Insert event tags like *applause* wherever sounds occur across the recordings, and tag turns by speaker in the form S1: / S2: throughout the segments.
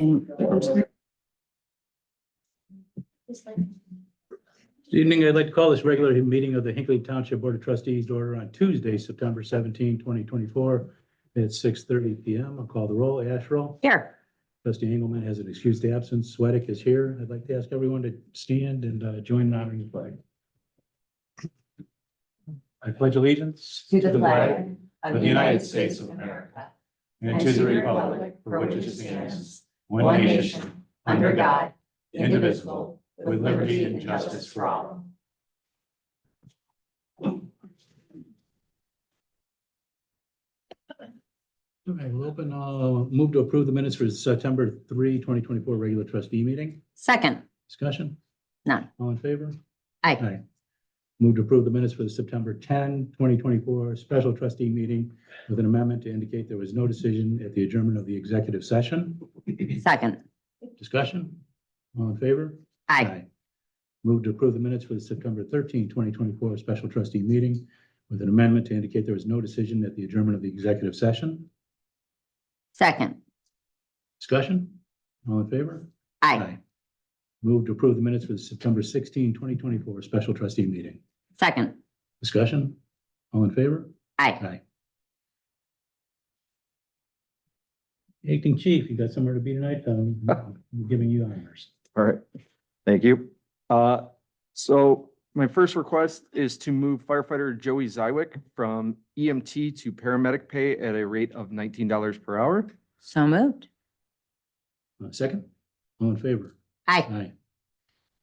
S1: And
S2: Good Evening, I'd like to call this regular meeting of the Hinkley Township Board of Trustees to order on Tuesday, September 17, 2024, at 6:30 PM. I'll call the roll. Asherall?
S1: here,
S2: Trustee Engelmann has an excused absence. Sweattick is here. I'd like to ask everyone to stand and uh, join in honoring the flag. I pledge allegiance
S1: to the flag
S3: of the United States of America and to the republic for which it stands, one nation, under God, indivisible, with liberty and justice for all.
S2: All right, we'll open, uh, move to approve the minutes for September 3, 2024, regular trustee meeting.
S1: Second,
S2: Discussion?
S1: None.
S2: All in favor?
S1: aye,
S2: Move to approve the minutes for the September 10, 2024 special trustee meeting with an amendment to indicate there was no decision at the adjournment of the executive session.
S1: second,
S2: Discussion? All in favor?
S1: aye,
S2: Move to approve the minutes for the September 13, 2024 special trustee meeting with an amendment to indicate there was no decision at the adjournment of the executive session.
S1: second,
S2: Discussion? All in favor?
S1: aye,
S2: Move to approve the minutes for the September 16, 2024 special trustee meeting.
S1: second,
S2: Discussion? All in favor?
S1: aye.
S2: Aye. Acting chief, you got somewhere to be tonight? *laughs* Um, I'm giving you honors.
S4: All right, thank you. Uh, so my first request is to move firefighter Joey Zywick from EMT to paramedic pay at a rate of nineteen dollars per hour.
S1: So moved,
S2: Uh, Second, all in favor?
S1: aye,
S2: Aye.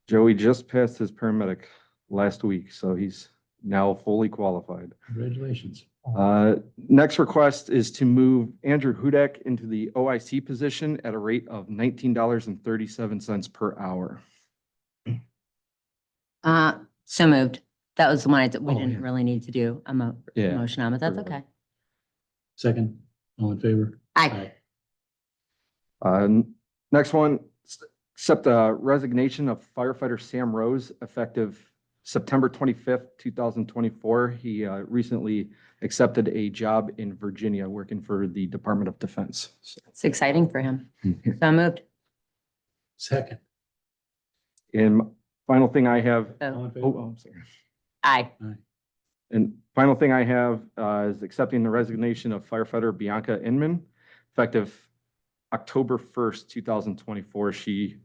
S4: Joey just passed his paramedic last week, so he's now fully qualified.
S2: Congratulations.
S4: Uh, next request is to move Andrew Hudak into the OIC position at a rate of nineteen dollars and thirty-seven cents per hour.
S1: uh, so moved. That was the one I, did- we
S2: Oh,
S1: didn't
S2: yeah.
S1: really need to do a mo-
S4: Yeah.
S1: motion on, but that's
S4: Sure.
S1: okay.
S2: Second, all in favor?
S1: Aye,
S4: Uh, n- Next one, s- accept the resignation of firefighter Sam Rose effective September 25th, 2024. He uh, recently accepted a job in Virginia working for the Department of Defense. So-
S1: it's exciting for him.
S4: Hmm.
S1: So moved,
S2: Second,
S4: And m- final thing I have,
S2: all in
S4: oh,
S2: favor?
S4: oh, I'm sorry.
S1: aye,
S4: And final thing I have uh, is accepting the resignation of firefighter Bianca Inman effective October 1st, 2024. She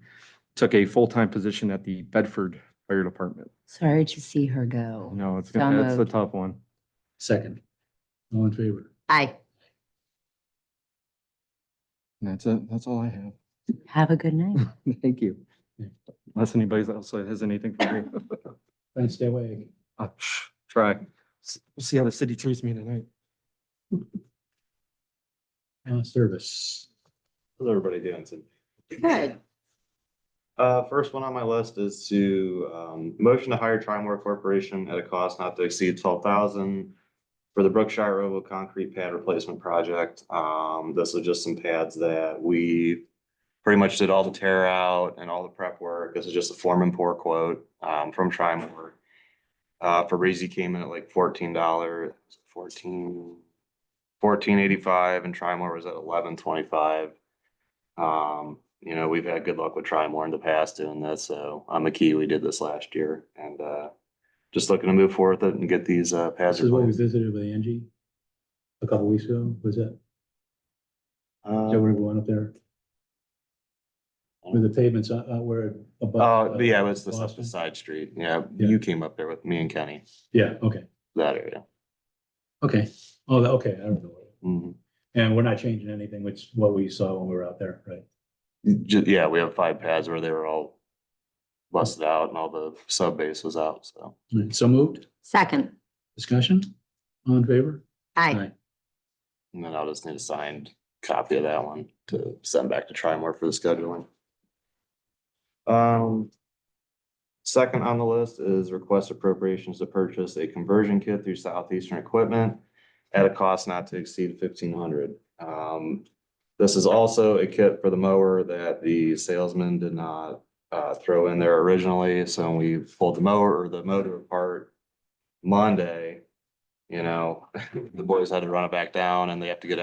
S4: took a full-time position at the Bedford Fire Department.
S1: sorry to see her go.
S4: No, it's,
S1: So
S4: gonna that's a
S1: moved.
S4: tough one.
S2: Second, all in favor?
S1: Aye,
S4: That's it. That's all I have.
S1: have a good night.
S4: *laughs* Thank you.
S2: Yeah.
S4: Unless anybody else has anything for *laughs* me.
S2: Try and stay away.
S4: I'll Try. S- We'll see how the city treats me tonight.
S2: Uh, Service.
S5: How's everybody doing today?
S1: Good.
S5: Uh, first one on my list is to, um, motion to hire Trimore Corporation at a cost not to exceed twelve thousand for the Brookshire Robo Concrete Pad Replacement Project. Um, this is just some pads that we pretty much did all the tear out and all the prep work. This is just a form and pour quote, um, from Trimore. Uh, Fabrizi came in at like fourteen dollar, fourteen, fourteen eighty-five and Trimore was at eleven twenty-five. Um, you know, we've had good luck with Trimore in the past doing this, so I'm a key. We did this last year and, uh, just looking to move forward with it and get these, uh, pads.
S2: This is what we
S5: replaced.
S2: visited with Angie a couple weeks ago. Was that,
S5: Uh, Um,
S2: is that where we went up there? With the pavements, uh, uh, where. above,
S5: Oh,
S2: uh,
S5: but yeah, it was the stuff
S2: Boston?
S5: beside street. Yeah,
S2: Yeah.
S5: you came up there with me and Kenny,
S2: Yeah, okay,
S5: that area.
S2: okay. Oh, that- okay, I don't know.
S5: Mhm.
S2: And we're not changing anything, which is what we saw when we were out there, right?
S5: Ju- Yeah, we have five pads where they were all busted out and all the sub base was out, so.
S2: All right, So moved,
S1: Second,
S2: discussion, all in favor?
S1: aye,
S5: And then I'll just need a signed copy of that one to send back to Trimore for the scheduling. Um, second on the list is request appropriations to purchase a conversion kit through Southeastern Equipment at a cost not to exceed fifteen hundred. Um, this is also a kit for the mower that the salesman did not uh throw in there originally, so when we pulled the mower or the motor apart *laughs* Monday, you know, the boys had to run it back down and they have to get